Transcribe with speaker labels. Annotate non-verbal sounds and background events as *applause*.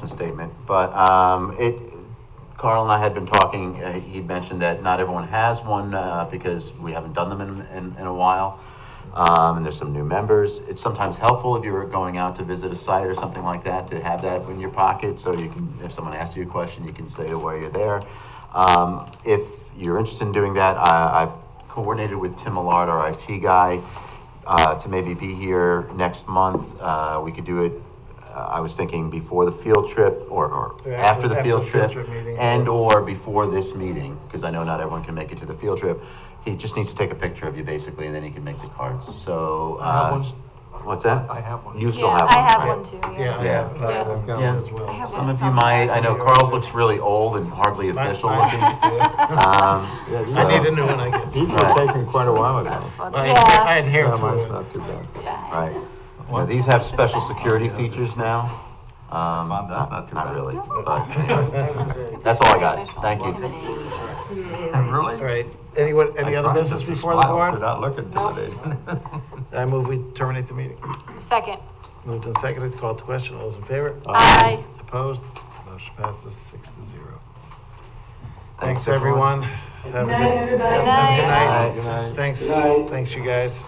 Speaker 1: the statement, but um, it, Carl and I had been talking, uh, he'd mentioned that not everyone has one uh, because we haven't done them in, in, in a while. Um, And there's some new members. It's sometimes helpful if you're going out to visit a site or something like that to have that in your pocket so you can, if someone asks you a question, you can say why you're there. Um, If you're interested in doing that, I- I've coordinated with Tim Millard, our IT guy, uh, to maybe be here next month. Uh, We could do it, uh, I was thinking before the field trip or, or
Speaker 2: Yeah,
Speaker 1: after the
Speaker 2: after
Speaker 1: field
Speaker 2: the field
Speaker 1: trip.
Speaker 2: trip meeting.
Speaker 1: And or before this meeting, because I know not everyone can make it to the field trip. He just needs to take a picture of you basically, and then he can make the cards, so.
Speaker 3: I have
Speaker 1: uh,
Speaker 3: one.
Speaker 1: What's that?
Speaker 3: I have one.
Speaker 1: You still
Speaker 4: Yeah,
Speaker 1: have one.
Speaker 4: I have
Speaker 1: right?
Speaker 4: one too,
Speaker 2: Yeah, I
Speaker 4: yeah.
Speaker 2: have, I have
Speaker 4: Yeah.
Speaker 2: one
Speaker 1: Yeah.
Speaker 2: as well.
Speaker 4: I have
Speaker 1: Some
Speaker 4: one
Speaker 1: of you might, I know
Speaker 2: somewhere.
Speaker 1: Carl's looks really old and hardly
Speaker 2: My-
Speaker 1: official
Speaker 2: my-
Speaker 1: looking. *laughs* Um,
Speaker 3: Yeah, these
Speaker 2: I need
Speaker 3: are-
Speaker 2: to know when I get.
Speaker 3: These were taken quite a while ago.
Speaker 4: That's funny.
Speaker 2: I
Speaker 4: Yeah.
Speaker 2: had, I had hair
Speaker 3: Yeah,
Speaker 2: to
Speaker 3: mine's
Speaker 2: it.
Speaker 3: not too bad.
Speaker 4: Yeah.
Speaker 1: Right. Now, these have special security features now. Um,
Speaker 3: Fun, that's not too
Speaker 1: Not
Speaker 3: bad.
Speaker 1: really, but anyway. *laughs* that's all I got, thank you.
Speaker 3: Really?
Speaker 2: All right, anyone, any
Speaker 3: I
Speaker 2: other
Speaker 3: tried
Speaker 2: business
Speaker 3: to
Speaker 2: before the
Speaker 3: smile,
Speaker 2: board?
Speaker 3: Did not look intimidating. *laughs*
Speaker 2: I move we terminate the meeting.
Speaker 4: Second.
Speaker 2: Moved and seconded, called to question, all those in favor?
Speaker 4: Aye.
Speaker 2: Opposed? Motion passes six to zero.
Speaker 1: Thanks,
Speaker 2: Thanks, everyone. Have a Good
Speaker 4: Good night.
Speaker 2: Good
Speaker 1: Aye.
Speaker 2: night. Thanks, thanks, you guys.